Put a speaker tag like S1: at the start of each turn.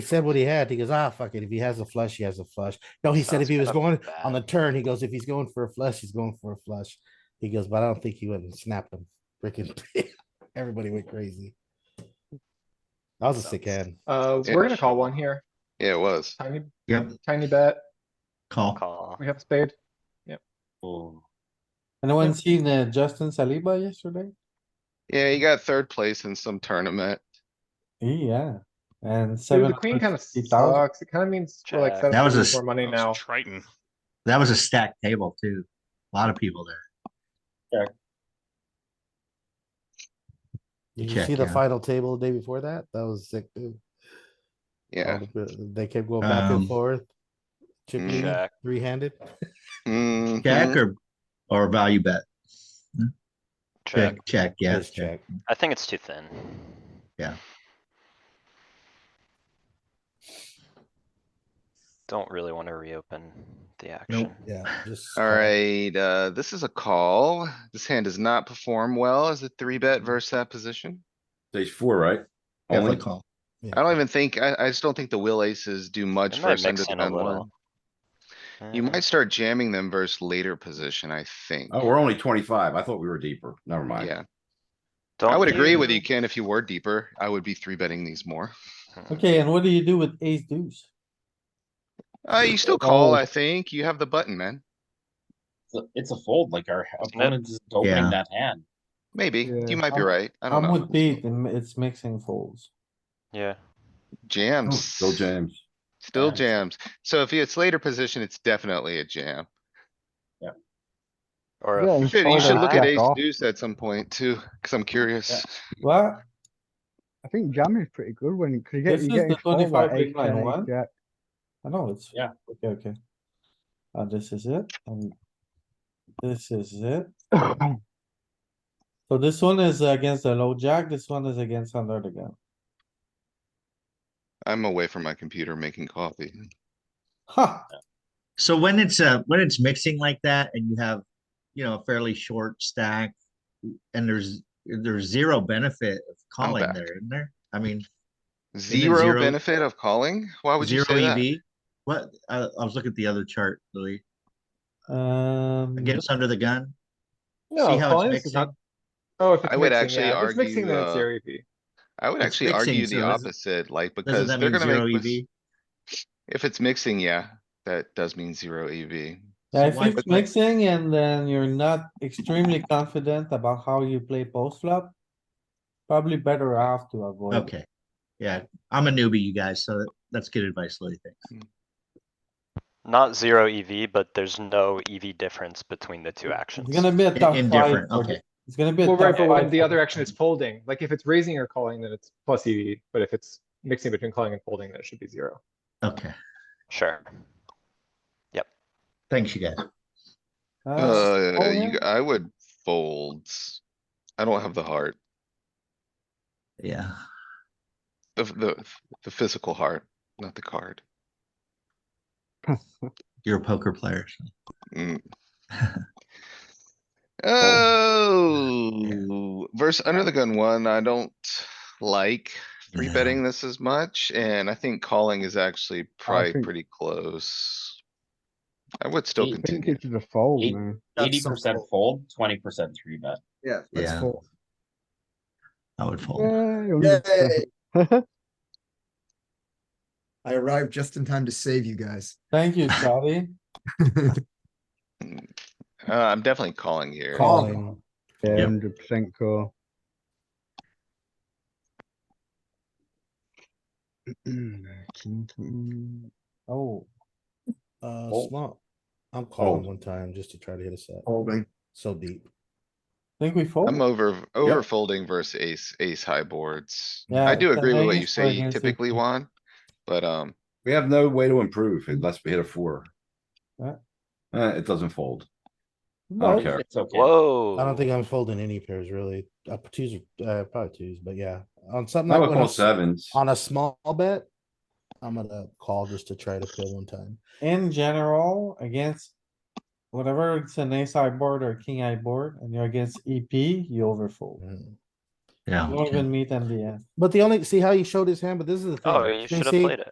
S1: He said what he had. He goes, ah, fuck it. If he has a flush, he has a flush. No, he said
S2: That's
S1: if he was
S2: kind of
S1: going
S2: bad.
S1: on the turn, he goes, if he's going for a flush, he's going for a flush. He goes, but I don't think he went and snapped him. Freaking everybody went crazy. That was a sick hand.
S3: Uh,
S2: Yeah.
S3: we're gonna call one here.
S2: Yeah, it was.
S3: Tiny,
S4: Yep,
S3: tiny bet.
S4: call.
S2: Call.
S3: We have a spade.
S5: Anyone seen uh, Justin Saliba yesterday?
S2: Yeah, he got third place in some tournament.
S5: Yeah, and
S3: Dude,
S5: seven.
S3: the queen kind of
S5: 750,000.
S3: sucks. It kind of means we're like
S2: Jack.
S3: seven
S4: That was a
S3: percent more money
S6: That
S3: now.
S6: was Triton.
S4: That was a stacked table too. A lot of people there.
S1: Did you
S4: check,
S1: see the
S4: yeah.
S1: final table the day before that? That was sick. dude. All
S2: Yeah.
S1: the- They kept going back
S4: Um,
S1: and forth. Chip
S2: Mm.
S1: leading,
S6: Check.
S1: three-handed.
S5: Oh.
S2: Mhm.
S7: Mm-hmm.
S4: Check or, or value bet?
S7: Check.
S4: Check, check, yes,
S1: Just
S4: check.
S7: I think it's too thin.
S4: Yeah.
S7: Don't really wanna reopen the
S4: Nope.
S7: action.
S1: Yeah, just.
S2: Alright, uh, this is a call. This hand does not perform well as a three bet versus that position.
S8: Stage four, right?
S4: Definitely
S8: Only,
S4: call.
S2: I don't even think, I, I just don't think the will aces do much
S7: It might
S2: versus
S7: mix
S2: under the
S7: in a
S2: gun one.
S7: little.
S2: You
S7: Mm,
S2: might start jamming them versus later position, I think.
S8: oh, we're only twenty-five. I thought we were deeper. Never mind.
S2: Yeah, I
S7: don't
S2: would agree with
S7: you-
S2: you, Ken. If you were deeper, I would be three betting these more.
S7: Mm,
S5: Okay, and what do you do with ace deuce?
S2: Uh, you still call,
S9: Oh.
S2: I think. You have the button, man.
S9: It's a- It's a fold, like our
S7: Isn't it?
S9: opponent is opening
S4: Yeah.
S9: that hand.
S2: Maybe.
S5: Yeah,
S2: You might be
S5: I'm-
S2: right. I don't
S5: I'm
S2: know.
S5: with Pete, and it's mixing folds.
S7: Yeah,
S2: Jams.
S8: Still jams.
S2: Still
S9: Yeah.
S2: jams. So if it's later position, it's definitely a jam.
S7: or
S5: Yeah,
S7: a
S5: you
S2: Shit,
S5: Oh,
S2: you should
S5: that's
S2: look at
S5: back
S2: ace
S5: off.
S2: deuce at some point too, cuz I'm curious.
S5: What?
S10: I think jamming is pretty good when you, cause you get,
S5: This
S10: you
S5: is
S10: get
S5: the
S10: in called
S5: 25
S10: by
S5: big
S10: ace
S5: blind
S10: ten, ace
S5: one.
S10: jack.
S5: I know it's.
S9: Yeah.
S5: Okay, okay. Uh, this is it, and this is it. So this one is against the low jack, this one is against under the gun.
S2: I'm away from my computer making coffee.
S5: Ha!
S4: So when it's uh when it's mixing like that and you have, you know, a fairly short stack and there's, there's zero benefit of calling
S2: back.
S4: there, isn't there? I mean,
S2: Zero
S4: zero-
S2: benefit of calling? Why would you
S4: zero E
S2: say that?
S4: EV. What? I, I was looking at the other chart, Louis.
S5: Um,
S4: Against under the gun.
S3: No,
S4: how it's
S3: calling is
S4: mixing?
S3: not. Oh, if it's
S2: I would
S3: mixing,
S2: actually
S3: yeah. If it's mixing,
S2: argue,
S3: then it's
S2: uh,
S3: zero EV.
S2: I would
S4: It's
S2: actually
S4: mixing,
S2: argue the
S4: so doesn't-
S2: opposite, like, because
S4: Doesn't that
S2: they're
S4: mean
S2: gonna
S4: zero E
S2: make. mis-
S4: EV?
S2: If it's mixing, yeah, that does mean zero E EV.
S5: Yeah, if
S4: why-
S5: it's mixing and then you're not extremely confident about how you play post flop, probably better off to avoid. it.
S4: Okay. Yeah, I'm a newbie, you guys, so that's good advice, Louis. Thanks.
S7: not zero EV, but there's no EV difference between the two actions.
S5: It's gonna be a tough fight.
S4: Indifferent,
S5: for-
S4: okay.
S5: It's gonna be a
S3: Well,
S5: tough
S3: right, but
S5: fight
S3: when the
S5: for-
S3: other action is folding, like if it's raising or calling, then it's plus EV. But if it's mixing between calling and folding, then it should be zero.
S4: Okay,
S7: Sure.
S4: thanks, you guys.
S5: Uh,
S2: Uh,
S5: oh,
S2: you,
S5: yeah.
S2: I would fold. I don't have the heart,
S4: Yeah.
S2: the, the, the physical heart, not the card.
S4: You're a poker player. so.
S2: Mm.
S4: I
S2: Oh, verse under the gun one, I don't like three
S4: No.
S2: betting this as much, and I think calling is actually probably
S10: think-
S2: pretty close. I would still
S9: Eight.
S10: I think
S2: continue.
S10: it's the fold,
S9: Eight.
S10: man.
S9: Eighty percent fold, twenty percent three bet.
S10: Yeah.
S4: Yeah. would fold.
S10: Yeah.
S11: I arrived just in time to save you guys.
S5: Thank you, Charlie.
S2: Uh, I'm definitely calling here.
S11: Call.
S1: Calling.
S4: Yep.
S10: Hundred percent call.
S5: Oh,
S1: Uh,
S8: Fold.
S1: small. I'm calling
S8: Fold.
S1: one time just to try to hit us up.
S11: Holding.
S1: So deep.
S5: think we fold?
S2: I'm over, over folding versus ace, ace high boards.
S5: Yeah,
S2: I do
S5: it's an
S2: agree with what you
S5: ace or
S2: say
S5: against a
S2: typically,
S5: king.
S2: Juan, but, um,
S8: We have no way to improve unless we hit a four.
S5: Yeah.
S8: Eh, it doesn't fold. I
S5: No,
S8: don't care.
S9: It's okay.
S7: Whoa.
S1: I don't think I'm folding any pairs really. Uh, twos, are- uh, probably twos, but yeah, on something.
S8: I
S1: like
S8: would
S1: when
S8: call
S1: it's
S8: sevens.
S1: On a small bet, I'm gonna call just to try to fill one time.
S5: in general, against whatever, E it's an ace high board or king high board, and you're against EP, you overfold.
S1: Mm.
S12: Yeah.
S13: You won't even meet MDM.
S5: But the only, see how you showed his hand, but this is the thing.
S1: Oh, you should have
S5: see,
S1: played it.